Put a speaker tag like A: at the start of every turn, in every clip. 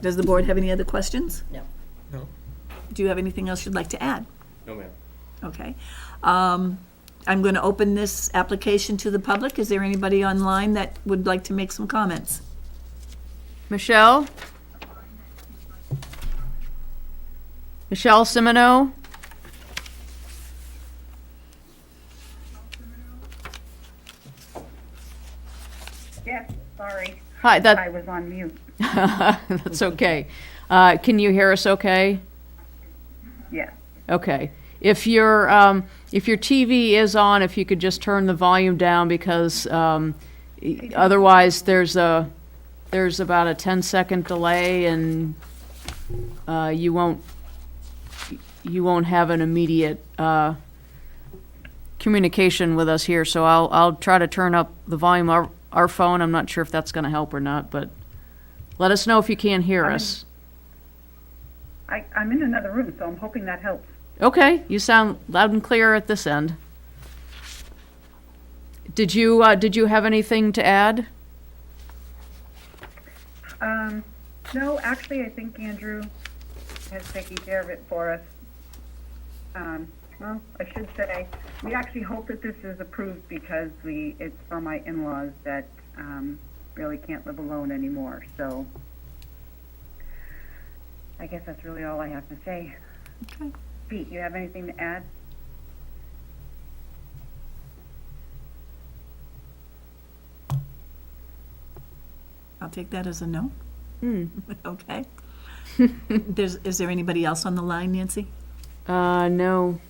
A: Does the board have any other questions?
B: No.
C: No.
A: Do you have anything else you'd like to add?
D: No, ma'am.
A: Okay. Um, I'm going to open this application to the public. Is there anybody online that would like to make some comments?
E: Michelle? Michelle Simoneau?
F: Yes, sorry,
E: Hi,
F: I
E: that,
F: was on mute.
E: that's okay. Uh, Can you hear us okay?
F: Yes.
E: Okay. If your, um, if your TV is on, if you could just turn the volume down because um, e- otherwise there's a, there's about a 10-second delay and uh, you won't, you won't have an immediate uh, communication with us here. So I'll, I'll try to turn up the volume of our phone. I'm not sure if that's going to help or not, but let us know if you can't hear
F: I'm-
E: us.
F: I, I'm in another room, so I'm hoping that helps.
E: Okay, you sound loud and clear at this end. Did you, uh, did you have anything to add?
F: Um, no, actually, I think Andrew has taken care of it for us. Um, well, I should say, we actually hope that this is approved because we, it's for my in-laws that, um, really can't live alone anymore, so. I guess that's really all I have to say.
A: Okay.
F: Pete, you have anything to add?
A: I'll take that as a no.
E: Hmm.
A: Okay. There's, is there anybody else on the line, Nancy?
E: Uh, no.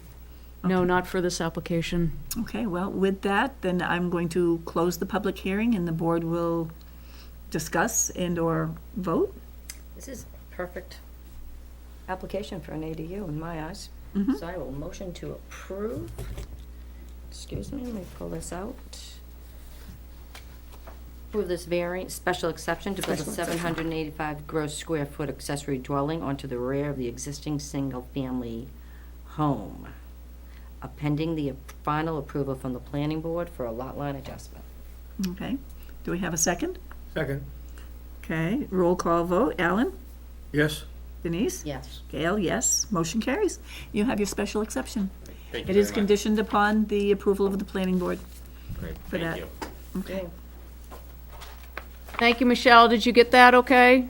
E: No, not for this application.
A: Okay, well, with that, then I'm going to close the public hearing and the board will discuss and/or vote.
B: This is perfect application for an ADU in my eyes.
A: Mhm.
B: So I will motion to approve. Excuse me, let me pull this out. Approve this variant, special exception to build a
A: Special exception.
B: seven hundred and eighty-five gross square foot accessory dwelling onto the rear of the existing single-family home, appending the final approval from the planning board for a lot line adjustment.
A: Okay, do we have a second?
C: Second.
A: Okay, roll call vote. Alan?
C: Yes.
A: Denise?
B: Yes.
A: Gail, yes. Motion carries. You have your special exception.
D: Thank you
A: It
D: very
A: is
D: much.
A: conditioned upon the approval of the planning board.
D: Great,
A: for that.
D: Thank you.
A: Okay.
E: Thank you, Michelle. Did you get that okay?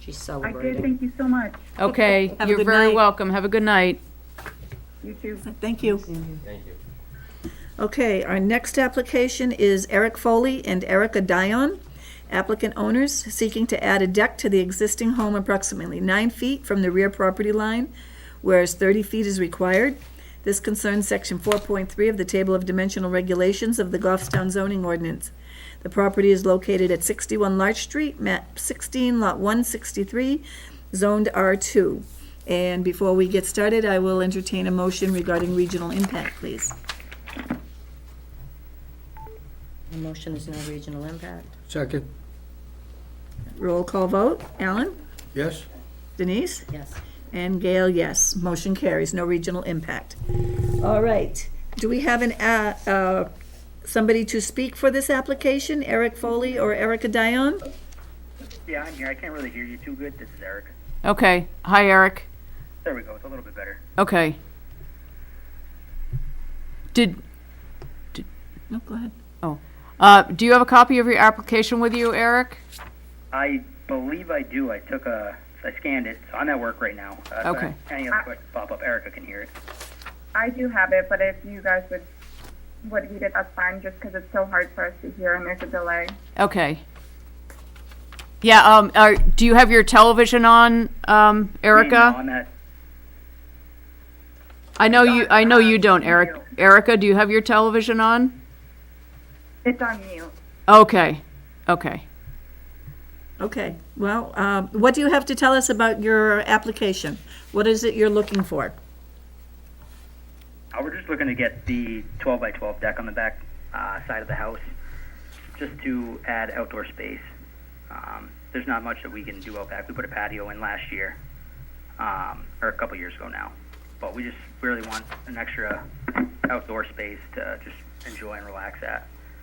B: She's
F: I
B: celebrating.
F: did, thank you so much.
E: Okay,
A: Have a
E: you're
A: good
E: very
A: night.
E: welcome. Have a good night.
F: You too.
A: Thank you.
D: Thank you.
A: Okay, our next application is Eric Foley and Erica Dion, applicant owners seeking to add a deck to the existing home approximately nine feet from the rear property line, whereas 30 feet is required. This concerns Section 4.3 of the Table of Dimensional Regulations of the Goffstown zoning ordinance. The property is located at 61 Larch Street, map 16, lot 163, zoned R2. And before we get started, I will entertain a motion regarding regional impact, please.
B: The motion is no regional impact.
C: Second.
A: Roll call vote. Alan?
C: Yes.
A: Denise?
B: Yes.
A: And Gail, yes. Motion carries. No regional impact. All right. Do we have an, uh, uh, somebody to speak for this application? Eric Foley or Erica Dion?
G: Yeah, I'm here. I can't really hear you too good. This is Eric.
E: Okay. Hi, Eric.
G: There we go. It's a little bit better.
E: Okay. Did,
A: No, go ahead.
E: uh, do you have a copy of your application with you, Eric?
G: I believe I do. I took a, I scanned it. So I'm at work right now. Uh, so
E: Okay.
G: Any other quick pop up, Erica can hear it.
H: I do have it, but if you guys would would read it, that's fine. Just because it's so hard for us to hear and there's a delay.
E: Okay. Yeah, um, are, do you have your television on, um,
G: No,
E: Erica?
G: I'm at.
E: I know you, I know you don't, Eric. Erica, do you have your television on?
H: It's on mute.
E: Okay, okay.
A: Okay. Well, um, what do you have to tell us about your application? What is it you're looking for?
G: Uh, we're just looking to get the 12 by 12 deck on the back uh, side of the house, just to add outdoor space. Um, there's not much that we can do out back. We put a patio in last year, um, or a couple years ago now, but we just really want an extra outdoor space to just enjoy and relax at.